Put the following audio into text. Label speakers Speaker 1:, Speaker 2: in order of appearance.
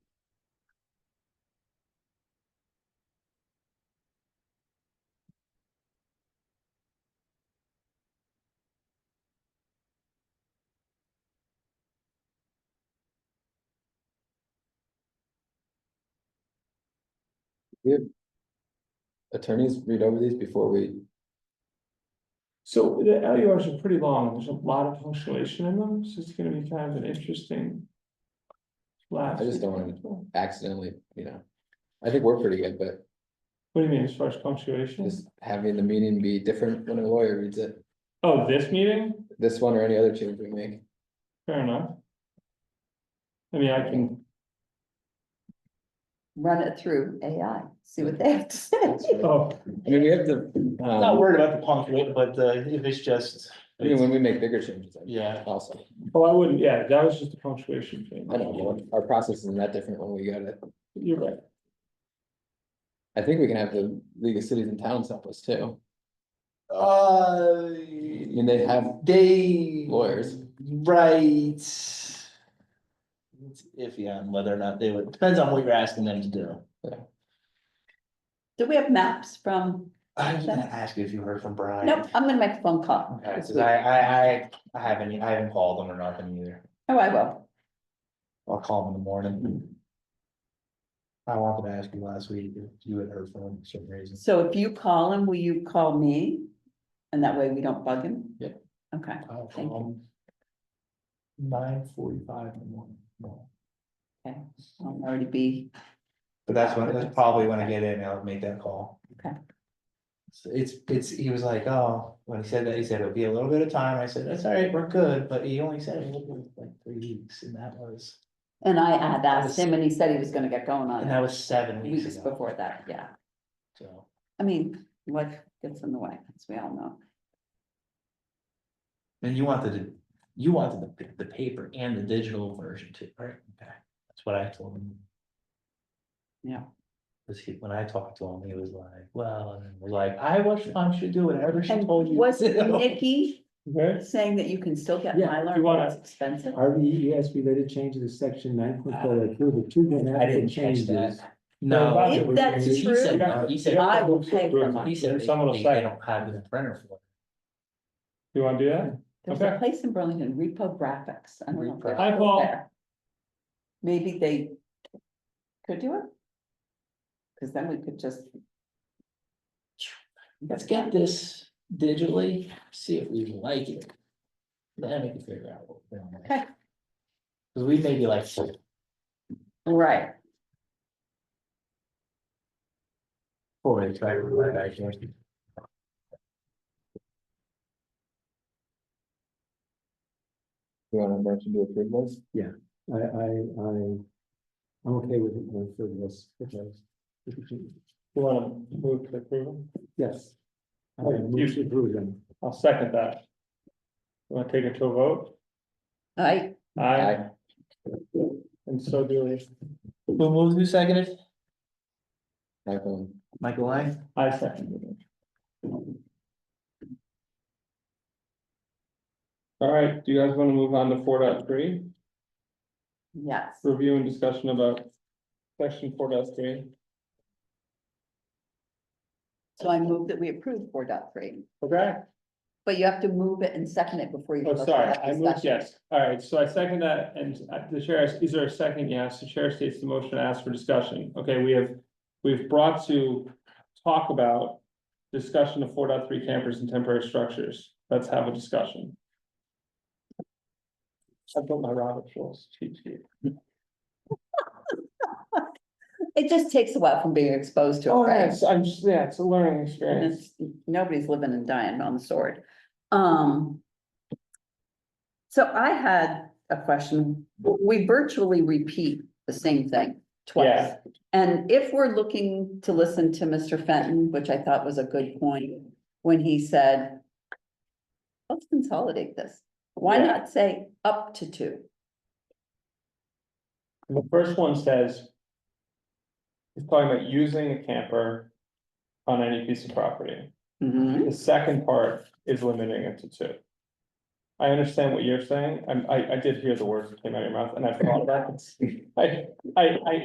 Speaker 1: we have attorneys read over these before we,
Speaker 2: So the LURs are pretty long, there's a lot of punctuation in them, so it's gonna be kind of an interesting. Last.
Speaker 1: I just don't wanna-
Speaker 2: What
Speaker 1: accidentally, you know. I think we're pretty good, but
Speaker 2: do you mean as far as punctuation?
Speaker 1: just having the meeting be different when a lawyer reads it,
Speaker 2: Oh, this meeting?
Speaker 1: this one or any other change we make.
Speaker 2: Fair enough. I mean, I can,
Speaker 3: run it through AI, see
Speaker 4: Hmm.
Speaker 3: what they have to say.
Speaker 1: That's right.
Speaker 2: oh,
Speaker 1: I mean, we have the,
Speaker 4: Not
Speaker 1: um,
Speaker 4: worried about the punctuate, but uh, if it's just,
Speaker 1: I mean, when we make bigger changes, I-
Speaker 4: yeah,
Speaker 1: also,
Speaker 2: oh, I wouldn't, yeah, that was just a punctuation thing.
Speaker 1: I don't know, our process isn't that different when we got it.
Speaker 2: You're right.
Speaker 1: I think we can have the League of Cities and Towns help us too.
Speaker 4: uh.
Speaker 1: mean, they have
Speaker 4: They.
Speaker 1: lawyers.
Speaker 4: Right. It's Iffy on whether or not they would, depends on what you're asking them to do.
Speaker 3: Do we have maps from,
Speaker 4: I was gonna ask you if you heard from Brian.
Speaker 3: nope, I'm gonna make a phone call.
Speaker 4: Okay,
Speaker 3: this
Speaker 4: cause
Speaker 3: week.
Speaker 4: I, I, I, I haven't, I haven't called them or nothing either.
Speaker 3: Oh, I will.
Speaker 4: I'll call them in the morning. I wanted to ask you last week if you had heard from him for some reason.
Speaker 3: So if you call him, will you call me? And that way we don't bug him?
Speaker 1: Yeah.
Speaker 3: Okay,
Speaker 4: I'll
Speaker 3: Thank you.
Speaker 4: call him. Uh, Nine forty-five in the morning. No.
Speaker 3: I'll already be,
Speaker 4: But that's when, that's probably when I get in, I'll make that call.
Speaker 3: Okay.
Speaker 4: So It's, it's, he was like, oh, when he said that, he said it'll be a little bit of time, I said, that's all right, we're good, but he only said it was like three weeks, and that was,
Speaker 3: and I had asked him and he said he was gonna get going on
Speaker 4: and that
Speaker 3: it
Speaker 4: was seven
Speaker 3: weeks
Speaker 4: weeks ago.
Speaker 3: before that, yeah.
Speaker 4: So,
Speaker 3: I mean, life gets in the way, as we all know.
Speaker 4: and you wanted, to- you wanted the, the paper and the digital version too, right? Okay, That's what I told him.
Speaker 3: Yeah.
Speaker 4: Cause he, when I talked to him, he was like, well, and we're like, I was, I should do whatever she
Speaker 3: And
Speaker 4: told you.
Speaker 3: was
Speaker 4: to do."
Speaker 3: Nikki
Speaker 5: Okay,
Speaker 3: saying that you can still get
Speaker 5: Yeah,
Speaker 3: Mylar,
Speaker 5: you wanna-
Speaker 3: but it's expensive?
Speaker 5: RVES E related changes to section nine point four, approve the treatment
Speaker 4: I didn't
Speaker 5: action
Speaker 4: catch
Speaker 5: changes.
Speaker 4: that. No.
Speaker 5: If
Speaker 4: he
Speaker 3: that's
Speaker 4: said-
Speaker 3: true,
Speaker 4: he said- He said.
Speaker 3: I will pay for mine.
Speaker 4: He said they-
Speaker 2: Someone will
Speaker 4: they-
Speaker 2: say.
Speaker 4: They don't have it in printer for.
Speaker 2: You wanna do that?
Speaker 3: There's a
Speaker 2: Okay.
Speaker 3: place in Burlington, Repo Graphics. I don't know. if they're
Speaker 4: Repo.
Speaker 2: Hi,
Speaker 3: still
Speaker 2: Paul.
Speaker 3: there. Maybe they could do it. Cause then we could just.
Speaker 4: Let's get this digitally, see if we like it. Then we can figure out what we don't like.
Speaker 3: Okay.
Speaker 4: Cause we may be like,
Speaker 3: Right,
Speaker 4: boy, it's right, we're right, actually.
Speaker 1: You want to mention to approve those?
Speaker 5: I, I, I, I'm okay with it going through this.
Speaker 2: You wanna move to approval?
Speaker 5: Yes. I move to approve them.
Speaker 2: I'll second that. You Wanna take it to a vote?
Speaker 3: I,
Speaker 2: Aye. And so do we.
Speaker 4: Who moved, who seconded?
Speaker 1: Aye, iPhone.
Speaker 4: Michael, I.
Speaker 2: I second it. All right, do you guys wanna move on to four point three?
Speaker 3: yes,
Speaker 2: review and discussion about section four three.
Speaker 3: so I move that we approve four dot three,
Speaker 2: Okay,
Speaker 3: but you have to move it and second it before you.
Speaker 2: oh,
Speaker 3: vote.
Speaker 2: sorry,
Speaker 3: That's
Speaker 2: I moved,
Speaker 3: discussion.
Speaker 2: yes, all right, so I second that, and uh, the chair, asks- is there a second? Yes, the chair states the motion asks for discussion, okay, we have. We've brought to talk about discussion of four point three campers and temporary structures, let's have a discussion. I built my Robert Schultz cheat sheet.
Speaker 3: It just takes a while from being exposed to it,
Speaker 2: Oh,
Speaker 3: right?
Speaker 2: yes, I'm just, yeah, it's a learning
Speaker 3: And
Speaker 2: experience.
Speaker 3: it's, nobody's living and dying on the sword. Um. So I had a question. We virtually repeat the same thing twice.
Speaker 2: Yeah.
Speaker 3: And if we're looking to listen to Mr. Fenton, which I thought was a good point, when he said. Let's consolidate this. Why
Speaker 2: Yeah.
Speaker 3: not say up to two?
Speaker 2: The first one says. It's talking about using a camper on any piece of property. The second part is limiting it to two. I understand what you're saying, I'm, I, I did hear the words that came out of your mouth, and I thought about it. I, I, I